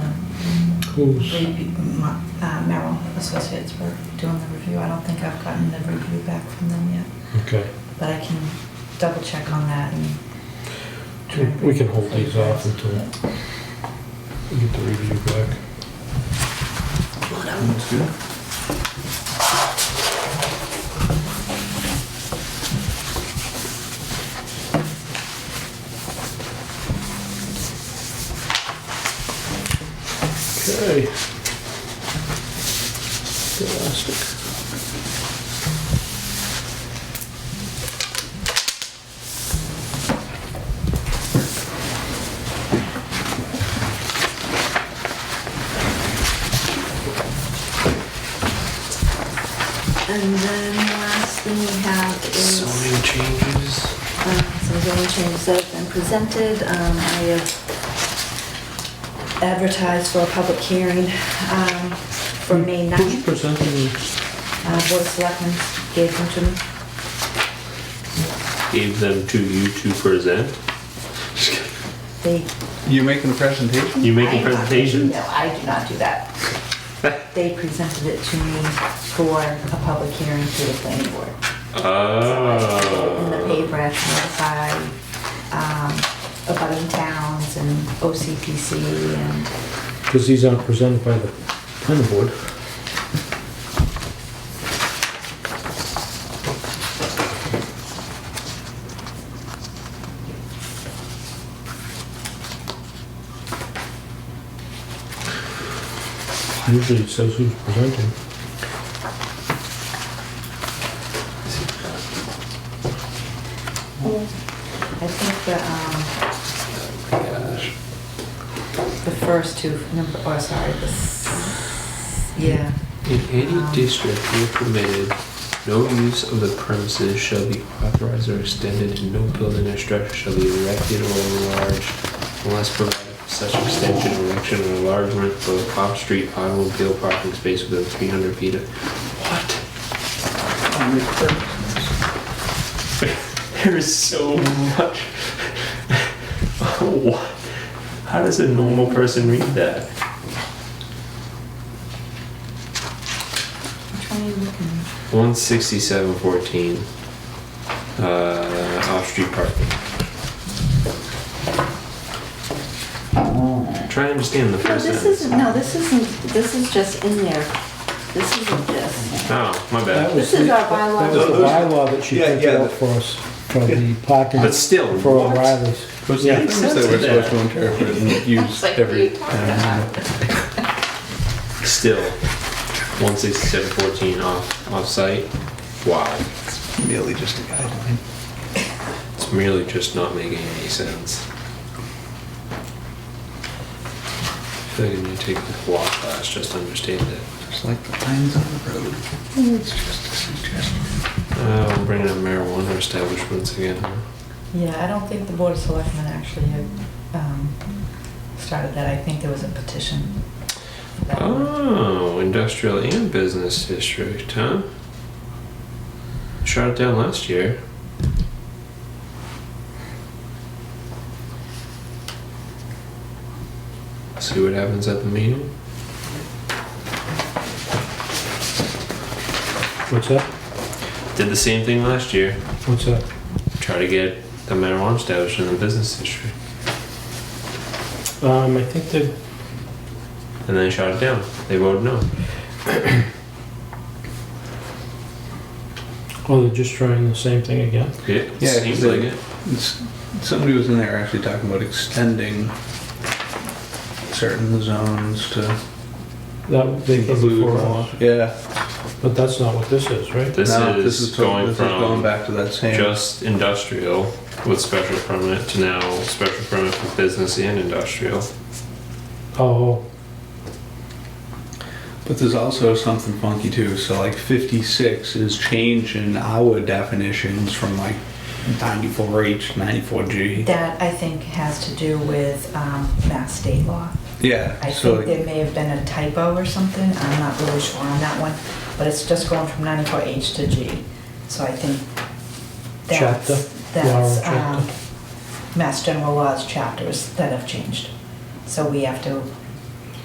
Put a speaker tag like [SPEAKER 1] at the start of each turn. [SPEAKER 1] schools.
[SPEAKER 2] They- Ma- uh, Merrill Associates were doing the review. I don't think I've gotten the review back from them yet,
[SPEAKER 1] Okay,
[SPEAKER 2] but I can double check on that and.
[SPEAKER 1] we can hold these off until we get the review back.
[SPEAKER 3] Looks good.
[SPEAKER 1] Okay. Elastic.
[SPEAKER 4] And then the last thing we have is
[SPEAKER 3] Zoning changes.
[SPEAKER 4] uh, some zoning changes that have been presented. Um, I have advertised for a public hearing um, for May
[SPEAKER 3] Mm-hmm.
[SPEAKER 4] 9th.
[SPEAKER 1] presenting
[SPEAKER 4] Uh, Board of Selectmen gave them to me.
[SPEAKER 5] Gave them to you to present.
[SPEAKER 4] They
[SPEAKER 3] You're making a presentation?
[SPEAKER 5] You making
[SPEAKER 4] I-
[SPEAKER 5] presentations?
[SPEAKER 4] No, I do not do that. They presented it to me for a public hearing to the planning board. So I put it In the
[SPEAKER 5] Oh.
[SPEAKER 4] paper, I notified, um, abutting towns and OCPC and,
[SPEAKER 1] Because these aren't presented by the planning board. Usually it says who's presenting.
[SPEAKER 4] I think the, um, the first two, number, oh, sorry, the, s- yeah.
[SPEAKER 5] In any
[SPEAKER 4] Um,
[SPEAKER 5] district where permitted, no use of the premises shall be authorized or extended, and no building or structure shall be erected or enlarged unless provided for such extension, erection, or enlargement of off-street automobile parking space within 300 feet of... What? There is so much. what? How does a normal person read that?
[SPEAKER 4] Which one are you looking at?
[SPEAKER 5] 16714 uh, off street parking. Try to understand the
[SPEAKER 4] No,
[SPEAKER 5] first
[SPEAKER 4] this
[SPEAKER 5] sentence.
[SPEAKER 4] isn't, no, this isn't, this is just in there. This isn't just,
[SPEAKER 5] Oh, my bad.
[SPEAKER 4] this is our bylaw.
[SPEAKER 1] That was the
[SPEAKER 3] Those-
[SPEAKER 1] bylaw that she
[SPEAKER 3] Yeah,
[SPEAKER 1] printed
[SPEAKER 3] yeah,
[SPEAKER 1] out
[SPEAKER 3] the-
[SPEAKER 1] for us, for the parking,
[SPEAKER 5] But still,
[SPEAKER 1] for
[SPEAKER 5] what?
[SPEAKER 1] O'Reilly's.
[SPEAKER 3] Those
[SPEAKER 1] Yeah.
[SPEAKER 3] are things that we're supposed to interpret and use
[SPEAKER 4] Like, what are you
[SPEAKER 3] every.
[SPEAKER 4] talking about?
[SPEAKER 5] Still, 16714 off, off site. Wow.
[SPEAKER 3] Merely just a guideline.
[SPEAKER 5] It's merely just not making any sense. I feel like I need to take a law class just to understand it.
[SPEAKER 3] Just like the lines on the road. It's just a suggestion.
[SPEAKER 5] Uh, we're bringing up marijuana establishments again. huh?
[SPEAKER 2] Yeah, I don't think the Board of Selectmen actually had, um, started that. I think there was a petition. for that one.
[SPEAKER 5] Oh, industrial and business district, huh? Shot it down last year. See what happens at the meeting?
[SPEAKER 1] What's that?
[SPEAKER 5] Did the same thing last year.
[SPEAKER 1] What's that?
[SPEAKER 5] Try to get the marijuana establishment in the business district.
[SPEAKER 1] Um, I think they,
[SPEAKER 5] And then shot it down. They voted no.
[SPEAKER 1] oh, they're just trying the same thing again?
[SPEAKER 5] It
[SPEAKER 3] Yeah,
[SPEAKER 5] seems
[SPEAKER 3] they-
[SPEAKER 5] like it.
[SPEAKER 3] It's- Somebody was in there actually talking about extending certain zones to.
[SPEAKER 1] That, they came before us,
[SPEAKER 3] Yeah.
[SPEAKER 1] but that's not what this is, right?
[SPEAKER 5] This,
[SPEAKER 3] no,
[SPEAKER 5] is
[SPEAKER 3] to-
[SPEAKER 5] going
[SPEAKER 3] this
[SPEAKER 5] from
[SPEAKER 3] is going back to that same.
[SPEAKER 5] just industrial with special permit to now special permit for business and industrial.
[SPEAKER 1] Oh,
[SPEAKER 3] But there's also something funky too. So like 56 is changing our definitions from like 94H, 94G.
[SPEAKER 2] That, I think, has to do with, um, mass state law.
[SPEAKER 3] Yeah.
[SPEAKER 2] I
[SPEAKER 3] so
[SPEAKER 2] think there may have been a typo or something, I'm not really sure on that one, but it's just going from 94H to G. So I think
[SPEAKER 1] Chapter?
[SPEAKER 2] that's,
[SPEAKER 1] Law
[SPEAKER 2] that's,
[SPEAKER 1] chapter.
[SPEAKER 2] um, Mass General Laws chapters that have changed. So we have to